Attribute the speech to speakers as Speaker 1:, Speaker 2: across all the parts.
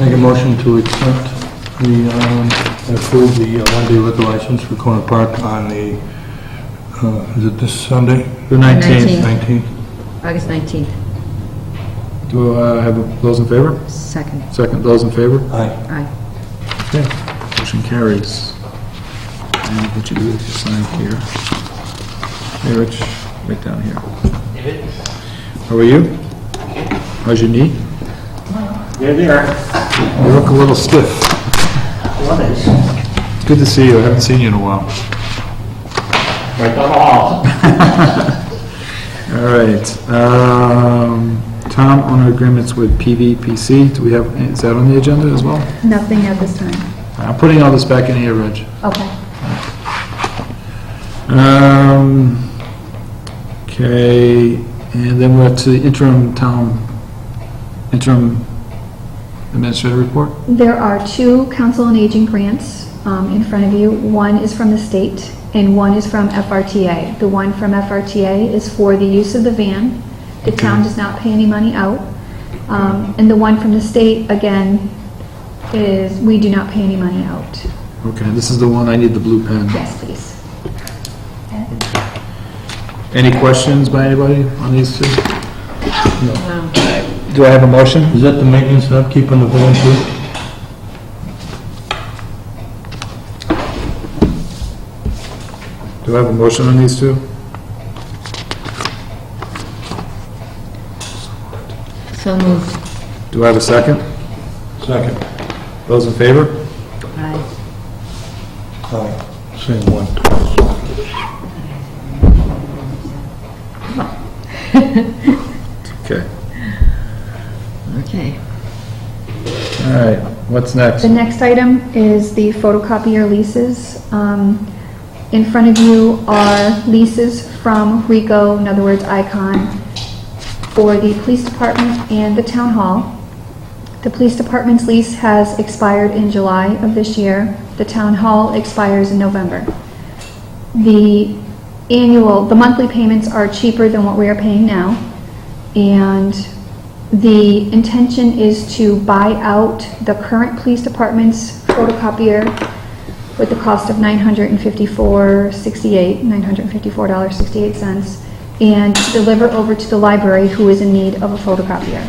Speaker 1: Make a motion to accept the, um, and approve the uh, one-day liquor license for Corner Park on the, uh, is it this Sunday?
Speaker 2: The 19th.
Speaker 3: 19th.
Speaker 1: 19th.
Speaker 3: August 19th,
Speaker 2: Do I have a- those in favor?
Speaker 3: second.
Speaker 2: Second, those in favor?
Speaker 1: Aye.
Speaker 3: Aye.
Speaker 2: Okay. Motion carries. And what you do is you sign here. Hey, Rich, right down here.
Speaker 4: David?
Speaker 2: How are you? How's your knee?
Speaker 4: There, there.
Speaker 2: You look a little stiff.
Speaker 4: What is?
Speaker 2: It's good to see you. I haven't seen you in a while.
Speaker 4: Right down the hall.
Speaker 2: All right. um, Tom, owner agreements with PVPC, do we have, is that on the agenda as well?
Speaker 5: Nothing at this time.
Speaker 2: I'm putting all this back in here, Rich.
Speaker 5: Okay.
Speaker 2: Um, okay, and then we're up to the interim town, interim administrator report?
Speaker 5: There are two Council on Aging grants um, in front of you. One is from the state and one is from FRTA. The one from FRTA is for the use of the van. The town does not pay any money out. Um, And the one from the state, again, is, we do not pay any money out.
Speaker 2: Okay, this is the one, I need the blue pen.
Speaker 5: Yes, please.
Speaker 2: Any questions by anybody on these two? Do I have a motion?
Speaker 1: Is that the maintenance and upkeep on the van too?
Speaker 2: Do I have a motion on these two?
Speaker 3: So moved.
Speaker 2: Do I have a second?
Speaker 1: Second.
Speaker 2: Those in favor?
Speaker 3: Aye.
Speaker 1: Aye. Same one.
Speaker 2: Okay,
Speaker 3: Okay.
Speaker 2: all right, what's next?
Speaker 5: The next item is the photocopier leases. Um, In front of you are leases from RICO, in other words, ICON, for the police department and the town hall. The police department's lease has expired in July of this year. The town hall expires in November. The annual, the monthly payments are cheaper than what we are paying now. And the intention is to buy out the current police department's photocopier with the cost of $954.68, $954.68, and deliver over to the library who is in need of a photocopier.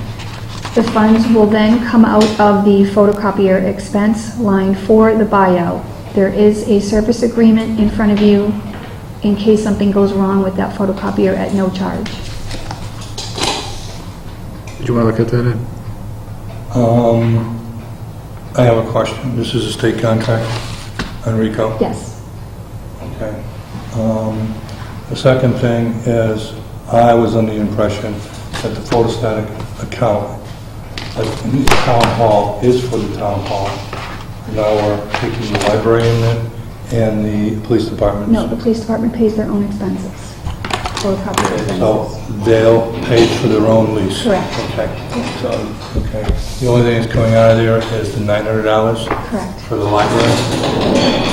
Speaker 5: The funds will then come out of the photocopier expense line for the buyout. There is a service agreement in front of you in case something goes wrong with that photocopier at no charge.
Speaker 2: Do you want to look at that? Ed?
Speaker 1: Um, I have a question. This is a state contract on Rico?
Speaker 5: Yes.
Speaker 1: Okay. Um, The second thing is, I was under the impression that the photostatic account, that the town hall is for the town hall. Now we're taking the library in it and the police department.
Speaker 5: No, the police department pays their own expenses, photocopier
Speaker 1: So
Speaker 5: expenses.
Speaker 1: they'll pay for their own lease.
Speaker 5: Correct.
Speaker 1: Okay. So, okay. The only thing that's coming out of there is the $900
Speaker 5: Correct.
Speaker 1: for the library.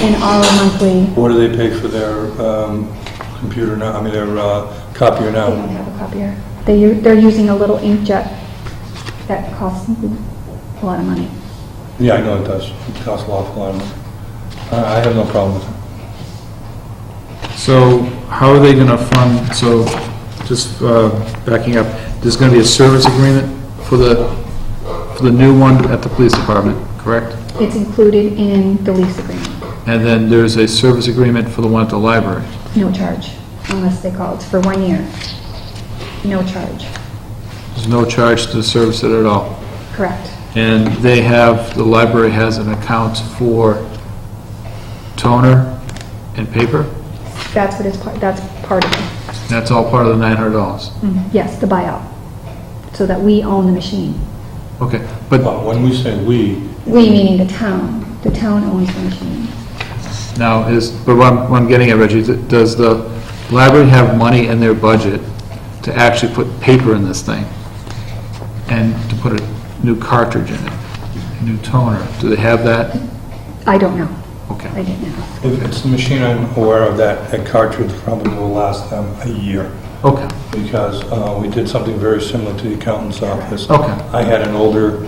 Speaker 5: In our monthly,
Speaker 1: What do they pay for their um, computer now, I mean, their uh, copier
Speaker 5: they
Speaker 1: now?
Speaker 5: don't have a copier. They, u- they're using a little inkjet that costs a lot of money.
Speaker 1: Yeah, I know it does. It costs an awful lot of money. I I have no problem with it.
Speaker 2: So how are they going to fund, so just uh, backing up, there's going to be a service agreement for the, for the new one at the police department, correct?
Speaker 5: It's included in the lease agreement,
Speaker 2: And then there's a service agreement for the one at the library.
Speaker 5: no charge, unless they call. It's for one year. No charge,
Speaker 2: There's no charge to service it at all.
Speaker 5: correct.
Speaker 2: And they have, the library has an account for toner and paper?
Speaker 5: That's what is, part. that's part of it.
Speaker 2: That's all part of the $900?
Speaker 5: Yes, the buyout, so that we own the machine.
Speaker 2: Okay, but
Speaker 1: But when we say "we,"
Speaker 5: We meaning the town. The town owns the machine.
Speaker 2: Now, is, but what I'm, what I'm getting at, Reggie, th- does the library have money in their budget to actually put paper in this thing? And to put a new cartridge in it, a new toner? Do they have that?
Speaker 5: I don't know. I
Speaker 2: Okay.
Speaker 5: didn't know.
Speaker 1: if it's the machine I'm aware of, that that cartridge probably will last them a year,
Speaker 2: Okay,
Speaker 1: because uh, we did something very similar to the accountant's office.
Speaker 2: okay.
Speaker 1: I had an older